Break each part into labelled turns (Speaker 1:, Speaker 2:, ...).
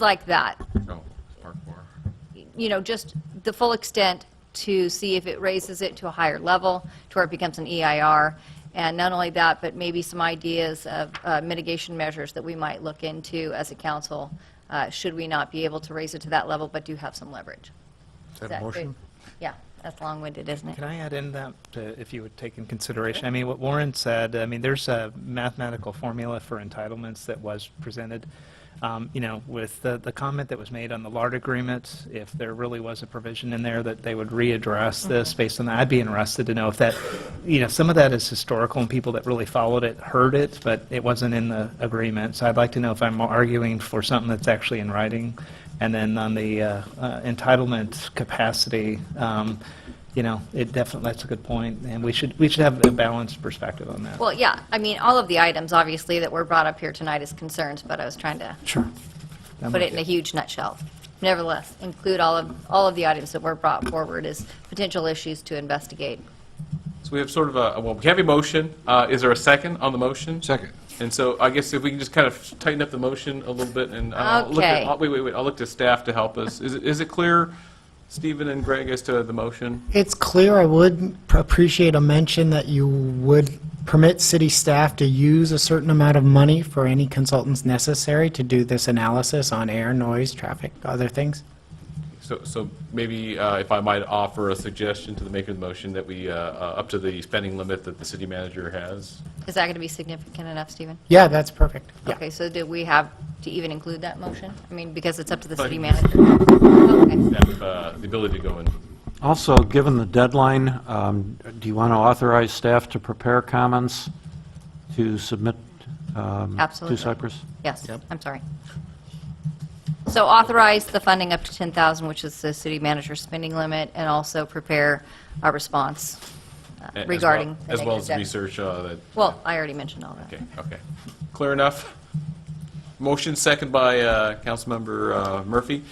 Speaker 1: like that,
Speaker 2: No, it's Oh, Park Bar.
Speaker 1: you know, just the full extent to see if it raises it to a higher level, to where it becomes an EIR. And not only that, but maybe some ideas of uh, mitigation measures that we might look into as a council, uh, should we not be able to raise it to that level, but do have some leverage.
Speaker 3: Is that
Speaker 1: That
Speaker 3: a
Speaker 1: good?
Speaker 3: motion?
Speaker 1: Yeah, that's long-winded, isn't it?
Speaker 4: Can I add in that, uh, if you would take in consideration, I mean, what Warren said, I mean, there's a mathematical formula for entitlements that was presented. Um, You know, with the, the comment that was made on the LART agreement, if there really was a provision in there that they would readdress this based on that, I'd be interested to know if that, you know, some of that is historical and people that really followed it heard it, but it wasn't in the agreement. So I'd like to know if I'm arguing for something that's actually in writing. And then on the uh, uh, entitlement capacity, um, you know, it definitely, that's a good point, and we should, we should have a balanced perspective on that.
Speaker 1: Well, yeah, I mean, all of the items, obviously, that were brought up here tonight as concerns, but I was trying to
Speaker 4: Sure.
Speaker 1: put it in a huge nutshell. Nevertheless, include all of, all of the items that were brought forward as potential issues to investigate.
Speaker 2: So we have sort of a, well, we have a motion. Uh, Is there a second on the motion?
Speaker 3: Second.
Speaker 2: And so I guess if we can just kind of tighten up the motion a little bit and I'll look at,
Speaker 1: Okay.
Speaker 2: I'll- wait, wait, wait, I'll look to staff to help us. Is it, is it clear, Stephen and Greg, as to the motion?
Speaker 5: It's clear, I would pr- appreciate a mention that you would permit city staff to use a certain amount of money for any consultants necessary to do this analysis on air, noise, traffic, other things.
Speaker 2: So, so maybe uh, if I might offer a suggestion to the maker of the motion that we, uh, uh, up to the spending limit that the city manager has.
Speaker 1: Is that going to be significant enough, Stephen?
Speaker 5: Yeah, that's perfect. Yeah.
Speaker 1: Okay, so do we have to even include that motion? I mean, because it's up to the city
Speaker 2: Fine.
Speaker 1: manager. Okay.
Speaker 2: Have uh, the ability to go in.
Speaker 6: Also, given the deadline, um, do you want to authorize staff to prepare comments to submit um,
Speaker 1: Absolutely.
Speaker 6: to Cyprus?
Speaker 1: Yes, I'm sorry. So authorize the funding up to 10,000, which is the city manager's spending limit, and also prepare a response uh,
Speaker 2: as well-
Speaker 1: regarding the
Speaker 2: As well
Speaker 1: negative
Speaker 2: as the
Speaker 1: debt.
Speaker 2: research uh, that.
Speaker 1: Well, I already mentioned all that.
Speaker 2: Okay, okay. Clear enough? Motion second by uh, Councilmember uh, Murphy.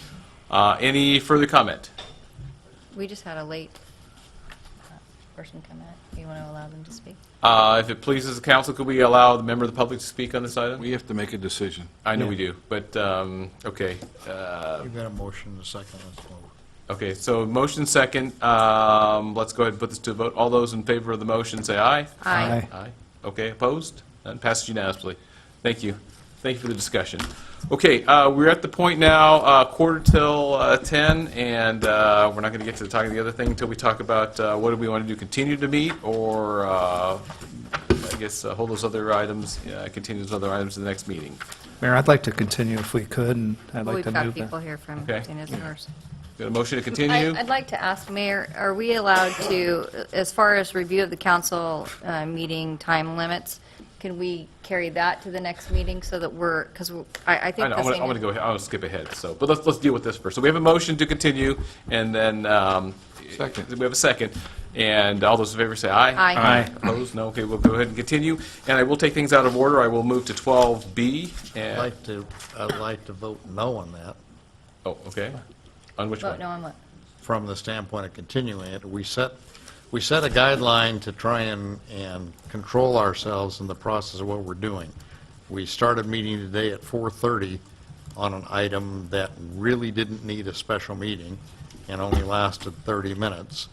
Speaker 2: Uh, Any further comment?
Speaker 1: We just had a late uh, person come in. Do you want to allow them to speak?
Speaker 2: Uh, If it pleases the council, could we allow the member of the public to speak on this item?
Speaker 3: We have to make a decision.
Speaker 2: I know we do, but, um, okay. uh,
Speaker 3: You've got a motion and a second, let's vote.
Speaker 2: Okay, so motion second, um, let's go ahead and put this to a vote. All those in favor of the motion, say aye.
Speaker 1: Aye.
Speaker 2: Aye. Okay, opposed? None, passes unanimously. Thank you. Thank you for the discussion. Okay, uh, we're at the point now, uh, quarter till uh, 10, and uh, we're not going to get to talking the other thing until we talk about uh, what do we want to do, continue to meet, or uh, I guess uh, hold those other items, uh, continue those other items in the next meeting.
Speaker 4: Mayor, I'd like to continue if we could, and I'd
Speaker 1: Well,
Speaker 4: like to
Speaker 1: We've got
Speaker 4: move that.
Speaker 1: people here from
Speaker 2: Okay.
Speaker 1: Martinez and Mercer.
Speaker 2: Got a motion
Speaker 1: I-
Speaker 2: to continue?
Speaker 1: I'd like to ask, Mayor, are we allowed to, as far as review of the council uh, meeting time limits, can we carry that to the next meeting so that we're, because I I
Speaker 2: I
Speaker 1: think
Speaker 2: know,
Speaker 1: the
Speaker 2: I'm gonna,
Speaker 1: same...
Speaker 2: I'm gonna go, ahead- I'm gonna skip ahead, so, but let's, let's deal with this first. So we have a motion to continue, and then, um.
Speaker 3: Second.
Speaker 2: We have a second, and all those in favor say aye.
Speaker 1: Aye. Aye.
Speaker 2: Opposed? No, okay, we'll go ahead and continue, and I will take things out of order, I will move to twelve B,
Speaker 7: I'd
Speaker 2: and,
Speaker 7: like to, I'd like to vote no on that,
Speaker 2: oh, okay. On which
Speaker 1: Vote
Speaker 2: one?
Speaker 1: oh, no on what?
Speaker 7: from the standpoint of continuing it. We set, we set a guideline to try and, and control ourselves in the process of what we're doing. We started meeting today at 4:30 on an item that really didn't need a special meeting and only lasted 30 minutes.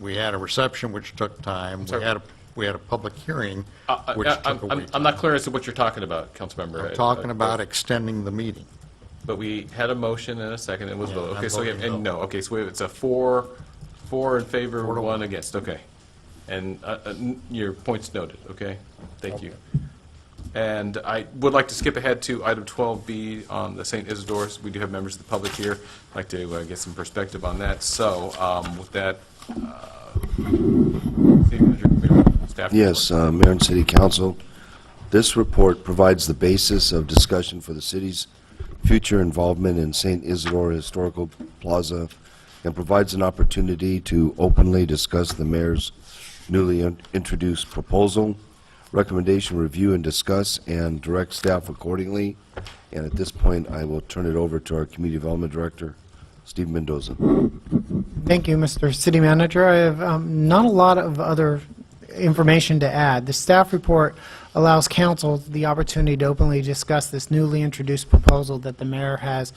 Speaker 7: We had a reception, which took time. We
Speaker 2: sorry.
Speaker 7: had, a we had a public hearing,
Speaker 2: Uh, uh,
Speaker 7: which
Speaker 2: uh,
Speaker 7: took
Speaker 2: I'm-
Speaker 7: a
Speaker 2: I'm,
Speaker 7: week.
Speaker 2: I'm not clear as to what you're talking about, Councilmember. uh,
Speaker 7: We're talking about extending the meeting.
Speaker 2: But we had a motion and a second, and was
Speaker 7: Yeah,
Speaker 2: voted,
Speaker 7: I'm
Speaker 2: okay, so we have,
Speaker 7: voting
Speaker 2: and
Speaker 7: no.
Speaker 2: no, okay, so we have- it's a four, four in favor,
Speaker 7: Four to
Speaker 2: one
Speaker 7: one.
Speaker 2: against, okay. And uh, uh, n- your point's noted, okay? Thank you. And I would like to skip ahead to item 12B on the St. Isidore's. We do have members of the public here, I'd like to uh, get some perspective on that. So um, with that, uh, City Manager, Mayor, staff.
Speaker 8: Yes,
Speaker 2: report.
Speaker 8: uh, Mayor and City Council, this report provides the basis of discussion for the city's future involvement in St. Isidore Historical Plaza and provides an opportunity to openly discuss the mayor's newly in- introduced proposal, recommendation, review, and discuss, and direct staff accordingly. And at this point, I will turn it over to our Community Development Director, Steve Mendoza.
Speaker 5: Thank you, Mr. City Manager. I have um, not a lot of other information to add. The staff report allows council the opportunity to openly discuss this newly introduced proposal that the mayor has